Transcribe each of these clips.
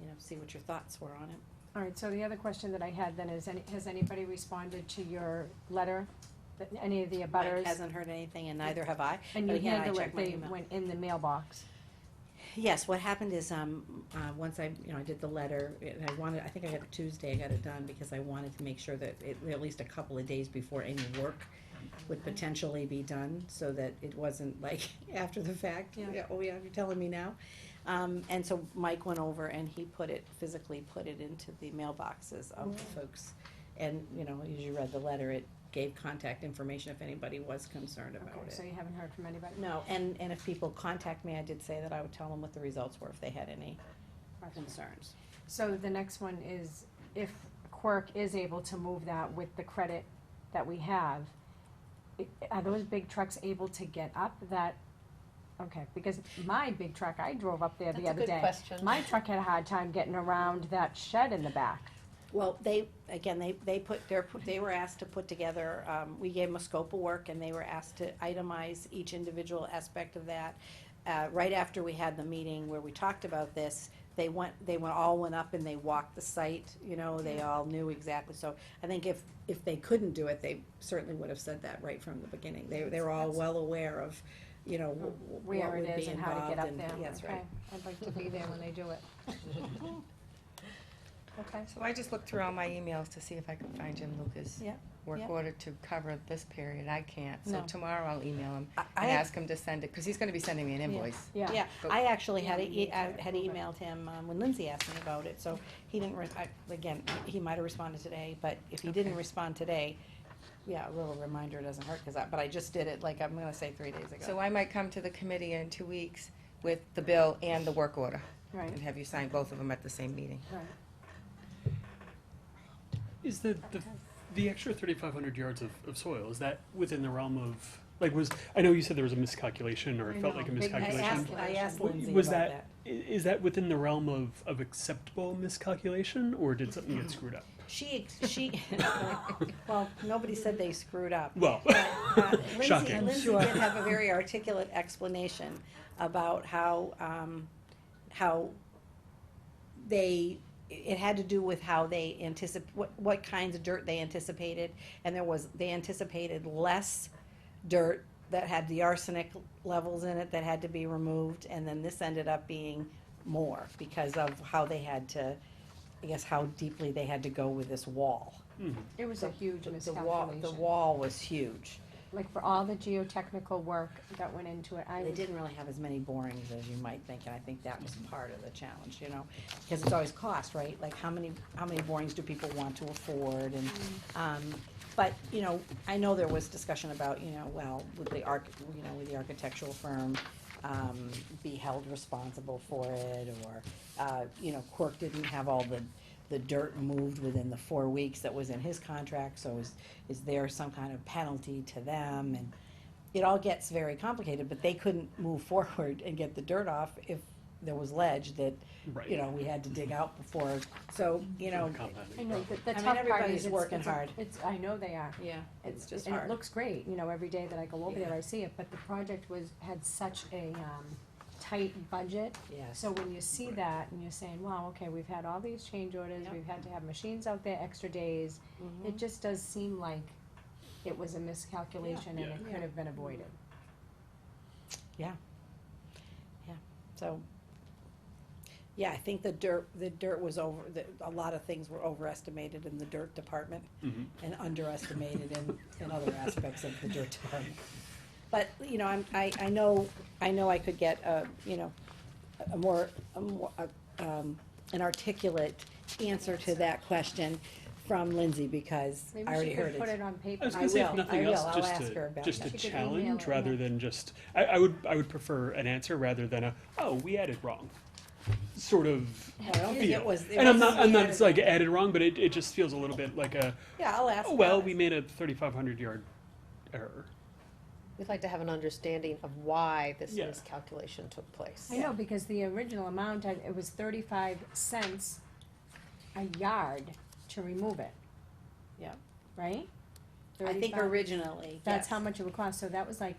you know, see what your thoughts were on it. All right, so the other question that I had then is, any- has anybody responded to your letter, that- any of the Mike abutters? hasn't heard anything and neither have I. And but you again, I handle check it, my they email. went in the mailbox. Yes, what happened is, um, uh, once I, you know, I did the letter, and I wanted, I think I got it Tuesday, I got it done, because I wanted to make sure that it, at least a couple of days before any work would potentially be done, so that it wasn't like after the fact, Yeah. yeah, oh yeah, you're telling me now. Um, and so Mike went over and he put it, physically put it into the mailboxes of the folks. And, you know, as you read the letter, it gave contact information if anybody was concerned about Okay, it. so you haven't heard from anybody? No, and, and if people contact me, I did say that I would tell them what the results were if they had any Okay. concerns. So the next one is, if Quirk is able to move that with the credit that we have, i- are those big trucks able to get up that, okay, because my big truck, I drove up there the That's a other good day. question. My truck had a hard time getting around that shed in the back. Well, they, again, they, they put, their they were asked to put together, um, we gave them a scope of work and they were asked to itemize each individual aspect of that. Uh, right after we had the meeting where we talked about this, they went, they went, all went up and they walked the site, you know, they all knew exactly. So I think if, if they couldn't do it, they certainly would have said that right from the beginning. They, they were all well aware of, you know, wh- wh- where what would be involved. it is and how to get up and- there. yeah, That's right. Okay, I'd like to be there when they do it. Okay, So I just looked through all my emails to see if I could find Jim Lucas' Yeah, yeah. work order to cover this period. I can't, so No. tomorrow I'll email him I- I and had- ask him to send it, because he's gonna be sending me an invoice. yeah. Yeah, But- I actually had, Yeah, a- you I need to had approve it. emailed him um, when Lindsay asked me about it, so he didn't, re- I- again, he might have responded today, but if he didn't Okay. respond today, yeah, a little reminder doesn't hurt, cause I, but I just did it, like, I'm gonna say three days So ago. I might come to the committee in two weeks with the bill and the work order Right, and have you sign both of them at the same meeting. right. Is the, the, the extra thirty-five hundred yards of, of soil, is that within the realm of, like, was, I know you said there was a miscalculation, or I it felt know. like a Big I asked, miscalculation. miscalculation. I asked W- Lindsay about Was that, that. i- is that within the realm of, of acceptable miscalculation, or did something get screwed up? She, she, well, nobody said they screwed up. Well, Uh, Lindsay, Shocking. Lindsay did have a very articulate explanation about how, um, how they, it had to do with how they anticip, what, what kinds of dirt they anticipated. And there was, they anticipated less dirt that had the arsenic levels in it that had to be removed. And then this ended up being more because of how they had to, I guess, how deeply they had to go with this wall. It was a huge The- The wall, the miscalculation. wall was huge. Like for all the geotechnical work that went into it, I They was, didn't really have as many borings as you might think, and I think that was part of the challenge, you know? Because it's always cost, right? Like, how many, how many borings do people want to afford, and, um, but, you know, I know there was discussion about, you know, well, would the arch, you know, would the architectural firm, um, be held responsible for it, or, uh, you know, Quirk didn't have all the, the dirt moved within the four weeks that was in his contract, so is, is there some kind of penalty to them, and, it all gets very complicated, but they couldn't move forward and get the dirt off if there was ledge that, you Right. know, we had to dig out before, so, you know. I know, the, the I mean, tough part is. everybody's it's- working it's a- hard. It's, I know they are. Yeah, And it looks great, you know, every day that I go over there, I see it, but the project was, had such a, um, tight budget. Yes. So when you see that and you're saying, wow, okay, we've had all these change orders, Yep. we've had to have machines out there extra days, it just does seem like it was a miscalculation and Yeah. it could have been avoided. So, yeah, I think the dirt, the dirt was over, the, a lot of things were overestimated in the dirt department Mm-hmm. and underestimated in, in other aspects of the dirt department. But, you know, I'm, I, I know, I know I could get a, you know, a- a more, a more, a, um, an articulate answer to that question from Lindsay because I Maybe already she heard could it. put it on paper. I was I gonna say, if will, nothing I else, will. I'll just ask her to, about just that. a She could email challenge it, rather yeah. than just, I, I would, I would prefer an answer rather than a, oh, we added wrong, sort of I don't think it feel. was- it And I'm wasn't not, I'm we not, added it's like added wrong, but it, it just feels a little bit like a, Yeah, I'll ask. oh, well, about we it. made a thirty-five hundred yard error. We'd like to have an understanding of why this Yeah. miscalculation took place. I know, because the original amount, I- it was thirty-five cents a yard to remove it. Yeah. Right? I think 35. originally, That's yes. how much it would cost, so that was like.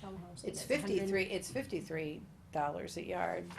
tell them how much it It's is, 100 fifty-three, it's fifty-three dollars a yard